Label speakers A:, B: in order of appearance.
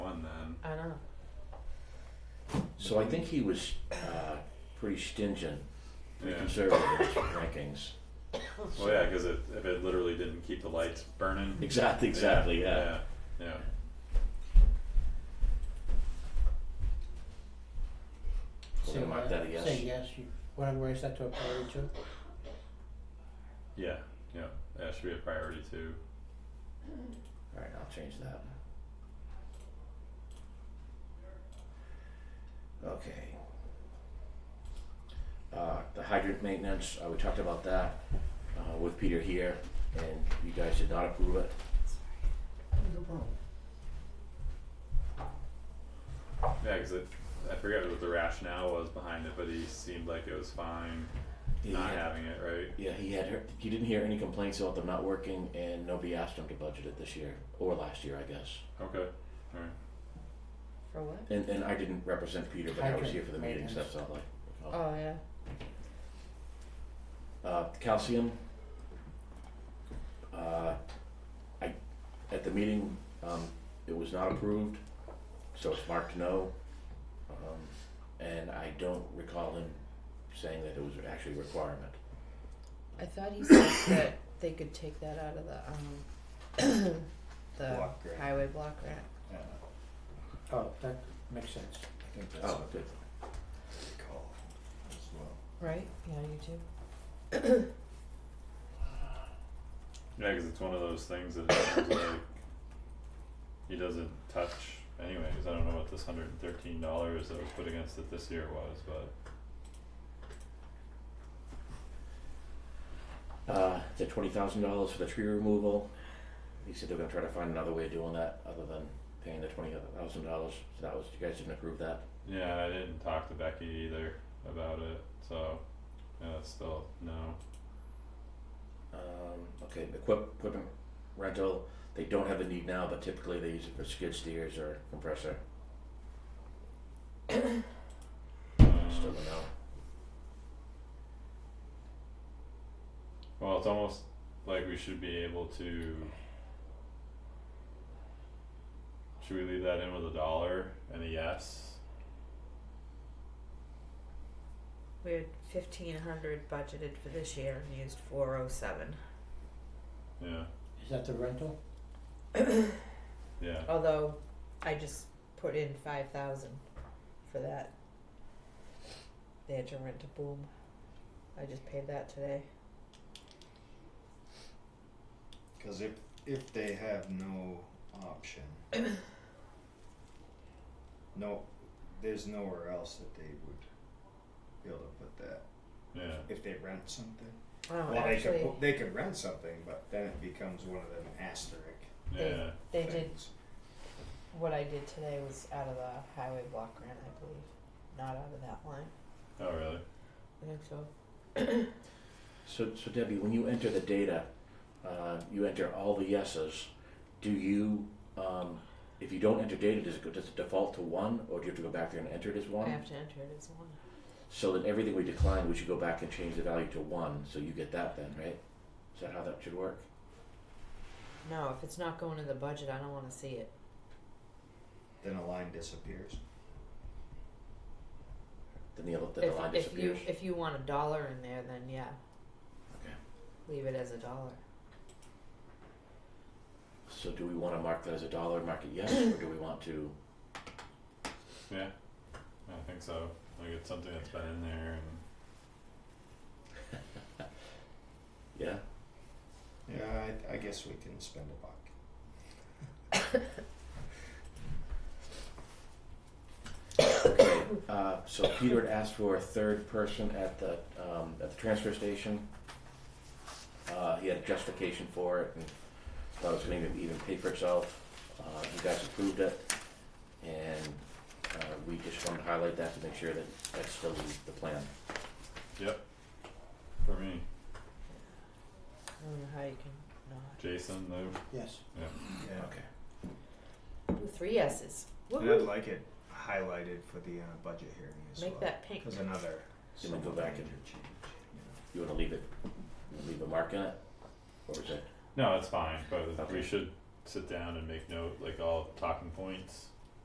A: So I think he was uh, pretty stingent, pretty
B: Yeah.
A: conservative in his rankings.
B: Well, yeah, because it, if it literally didn't keep the lights burning.
A: Exactly, exactly, yeah.
B: Yeah. yeah.
A: We're gonna mark that a yes.
C: Say yes, you wanna raise that to a priority too?
B: Yeah, yeah, that should be a priority too.
A: All right, I'll change that. Okay. Uh, the hydrant maintenance, uh, we talked about that, uh, with Peter here, and you guys did not approve it.
D: No problem.
B: Yeah, because I forget what the rationale was behind it, but he seemed like it was fine
A: He
B: not
A: had-
B: having it, right?
A: Yeah, he had, heard- he didn't hear any complaints about them not working, and nobody asked him to budget it this year, or last year, I guess.
B: Okay, alright.
E: For what?
A: And, and I didn't represent Peter, but I was
C: Hydrant
A: here for the meetings,
C: maintenance.
A: that's all like. oh.
E: Oh, yeah.
A: Uh, calcium. Uh, I, at the meeting, um, it was not approved, so it's marked no. Um, and I don't recall him saying that it was actually a requirement.
E: I thought he said that they could take that out of the, um, the
D: Block grant.
E: highway block grant.
D: Yeah,
C: Oh, that makes sense.
D: I think that's
A: Oh,
D: what
A: good.
D: they call it as well.
E: Right? Yeah, you too.
B: Yeah, because it's one of those things that it sounds like he doesn't touch anyways. I don't know what this hundred and thirteen dollars that was put against it this year was, but
A: Uh, the twenty thousand dollars for the tree removal. He said they're gonna try to find another way of doing that other than paying the twenty thousand dollars. So that was, you guys didn't approve that.
B: yeah, I didn't talk to Becky either about it, so yeah, it's still no.
A: Um, okay, equip, equipment rental, they don't have a need now, but typically they use it for skid steers or compressor, still a
B: Um,
A: no.
B: Well, it's almost like we should be able to. Should we leave that in with a dollar and a yes?
E: We had fifteen hundred budgeted for this year and used four oh seven.
B: Yeah,
C: Is that the rental?
B: yeah,
E: Although, I just put in five thousand for that. They had to rent a boom. I just paid that today.
D: Cause if, if they have no option. No, there's nowhere else that they would be able to put that,
B: yeah.
D: if they rent something.
E: Oh,
D: Well, they could,
E: actually,
D: pu- they could rent something, but then it becomes one of them asterisk
B: Yeah,
E: they did
D: things.
E: What I did today was out of the highway block grant, I believe, not out of that line.
B: oh really?
E: I think so.
A: So, so Debbie, when you enter the data, uh, you enter all the yeses, do you, um, if you don't enter data, does it go, does it default to one, or do you have to go back there and enter it as
E: I
A: one?
E: have to enter it as one.
A: So then everything we decline, we should go back and change the value to one, so you get that then, right? Is that how that should work?
E: No, if it's not going in the budget, I don't wanna see it.
D: Then a line disappears.
A: Then the, then the
E: If-
A: line disappears?
E: If you, if you want a dollar in there, then yeah.
A: Okay.
E: Leave it as a dollar.
A: So do we wanna mark that as a dollar, mark it yes, or do we want to?
B: Yeah, I think so. Like it's something that's been in there, and
A: Yeah,
D: Yeah, I, I guess we can spend a buck.
A: okay, uh, so Peter had asked for a third person at the, um, at the transfer station. Uh, he had a justification for it and thought it was gonna even pay for itself, uh, you guys approved it. And, uh, we just wanted to highlight that to make sure that that's still the- the plan.
B: for me,
E: I don't know how you can not.
B: Jason, Lou,
C: Yes.
D: Yeah.
A: Okay.
E: Ooh, Three S's.
D: And I'd
E: Woo-hoo.
D: like it highlighted for the uh, budget hearing as
E: Make
D: well.
E: that pink.
D: Cause another.
A: You might go back and-
D: major change, you
A: You wanna leave it, leave a mark in it? Or is it,
B: no, it's fine. But
A: Okay.
B: we should sit down and make note, like all talking points,